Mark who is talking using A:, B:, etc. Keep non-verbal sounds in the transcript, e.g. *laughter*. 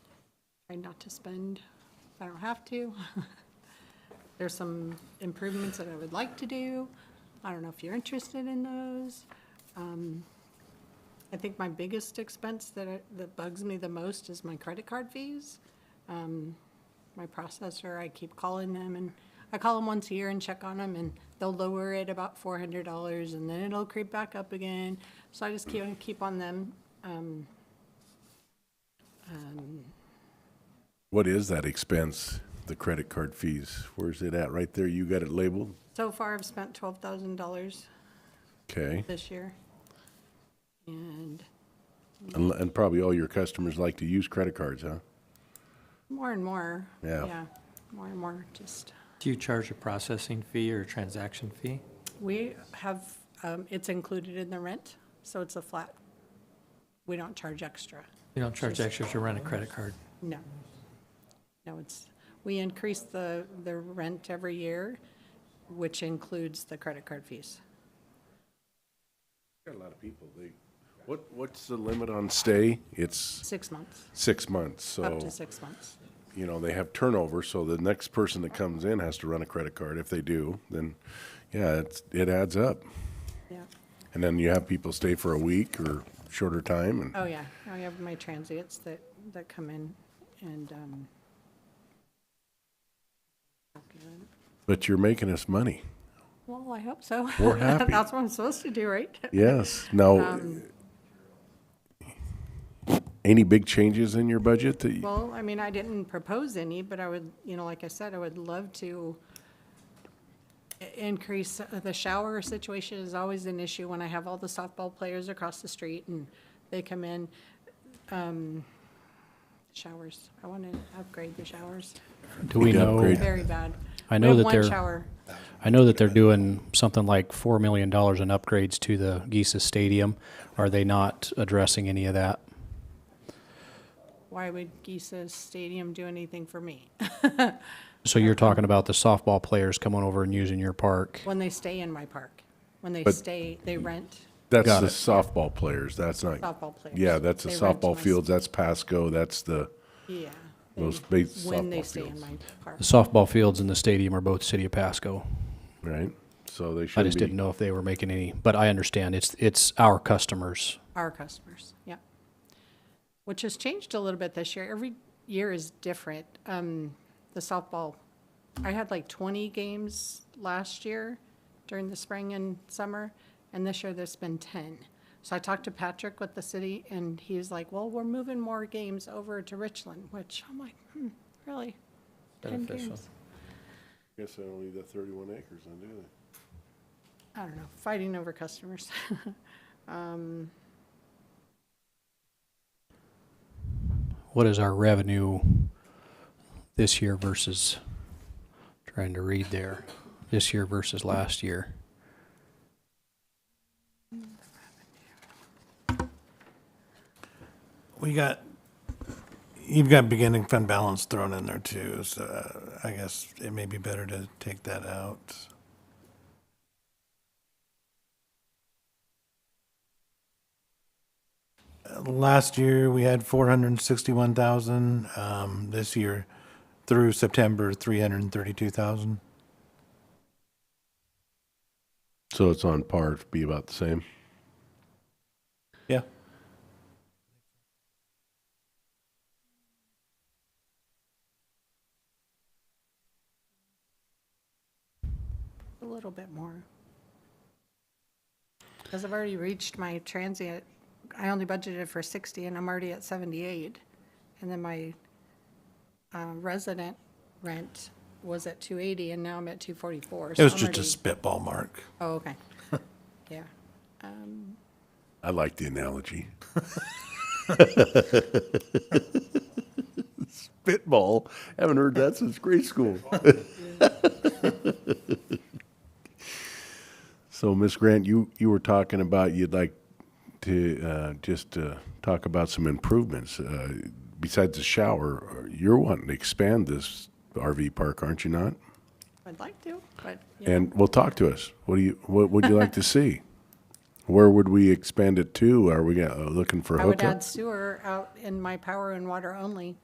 A: try not to spend if I don't have to. *laughs* There's some improvements that I would like to do. I don't know if you're interested in those. Um, I think my biggest expense that, I- that bugs me the most is my credit card fees. Um, My processor, I keep calling them and I call them once a year and check on them and they'll lower it about four hundred dollars and then it'll creep back up again. So I just keep, keep on them. Um, um,
B: What is that expense, the credit card fees? Where's it at? Right there, you got it labeled?
A: So far, I've spent twelve thousand dollars
B: Okay.
A: this year. And
B: And and probably all your customers like to use credit cards, huh?
A: more and more.
B: Yeah.
A: More and more, just,
C: Do you charge a processing fee or a transaction fee?
A: we have, um, it's included in the rent, so it's a flat. We don't charge extra,
C: You don't charge extra to run a credit card.
A: no. No, it's, we increase the, the rent every year, which includes the credit card fees.
B: Got a lot of people. They, what, what's the limit on stay? It's
A: Six months,
B: six months, so.
A: up to six months.
B: you know, they have turnover, so the next person that comes in has to run a credit card. If they do, then yeah, it's, it adds up.
A: Yeah,
B: And then you have people stay for a week or shorter time and
A: oh yeah, I have my transients that, that come in and, um,
B: but you're making us money.
A: Well, I hope so.
B: We're
A: *laughs*
B: happy.
A: That's what I'm supposed to do, right?
B: Yes. Now
A: Um,
B: any big changes in your budget that you,
A: Well, I mean, I didn't propose any, but I would, you know, like I said, I would love to i- increase, uh, the shower situation is always an issue when I have all the softball players across the street and they come in. Um, Showers, I want to upgrade the showers,
D: Do we
B: Need to
D: know,
B: upgrade.
A: very bad.
D: I
A: We
D: know
A: have
D: that
A: One
D: they're-
A: shower,
D: I know that they're doing something like $4 million in upgrades to the Geesis Stadium. Are they not addressing any of that?
A: why would Geesa's Stadium do anything for me? *laughs*
D: So you're talking about the softball players coming over and using your park.
A: When they stay in my park, when they
B: But-
A: stay, they rent.
B: that's
D: Got
B: the
D: it.
B: softball players. That's not
A: Softball players.
B: Yeah, that's the
A: They rent
B: softball
A: my-
B: fields. That's Pasco. That's the
A: Yeah.
B: those
A: they-
B: big
A: When they
B: softball
A: stay in
B: fields,
A: my park.
D: The softball fields and the stadium are both City of Pasco.
B: right? So they should
D: I just
B: be,
D: didn't know if they were making any, but I understand it's it's our customers.
A: our customers, yeah. Which has changed a little bit this year. Every year is different. Um, the softball, I had like twenty games last year during the spring and summer, and this year there's been ten. So I talked to Patrick with the city, and he was like, well, we're moving more games over to Richland, which I'm like, hmm, really? Ten games?
B: Guess they only the 31 acres, then, do they?
A: I don't know, fighting over customers. *laughs* Um,
D: What is our revenue this year versus trying to read there? This year versus last year.
E: We got, you've got beginning fund balance thrown in there too, so uh, I guess it may be better to take that out. Uh, Last year, we had four hundred and sixty-one thousand, um, this year through September, three hundred and thirty-two thousand.
B: So it's on par to be about the same.
E: Yeah.
A: A little bit more. Because I've already reached my transient, I only budgeted for 60 and I'm already at 78. And then my uh, resident rent was at 280 and now I'm at 244.
E: It
A: so
E: was
A: I'm
E: just a
A: already-
E: spitball mark.
A: Oh,
E: *laughs*
A: okay. Yeah. Um,
B: I like the analogy. Spitball. Haven't heard that since grade school. so, Miss Grant, you, you were talking about you'd like to uh, just uh, talk about some improvements. Uh, besides the shower, you're wanting to expand this RV park, aren't you not?
A: I'd like to, but, you know,
B: And well, talk to us. What do you? What would you
A: *laughs*
B: like to see? Where would we expand it to? Are we uh, looking for
A: I would
B: hookups?
A: add sewer out in my power and water only.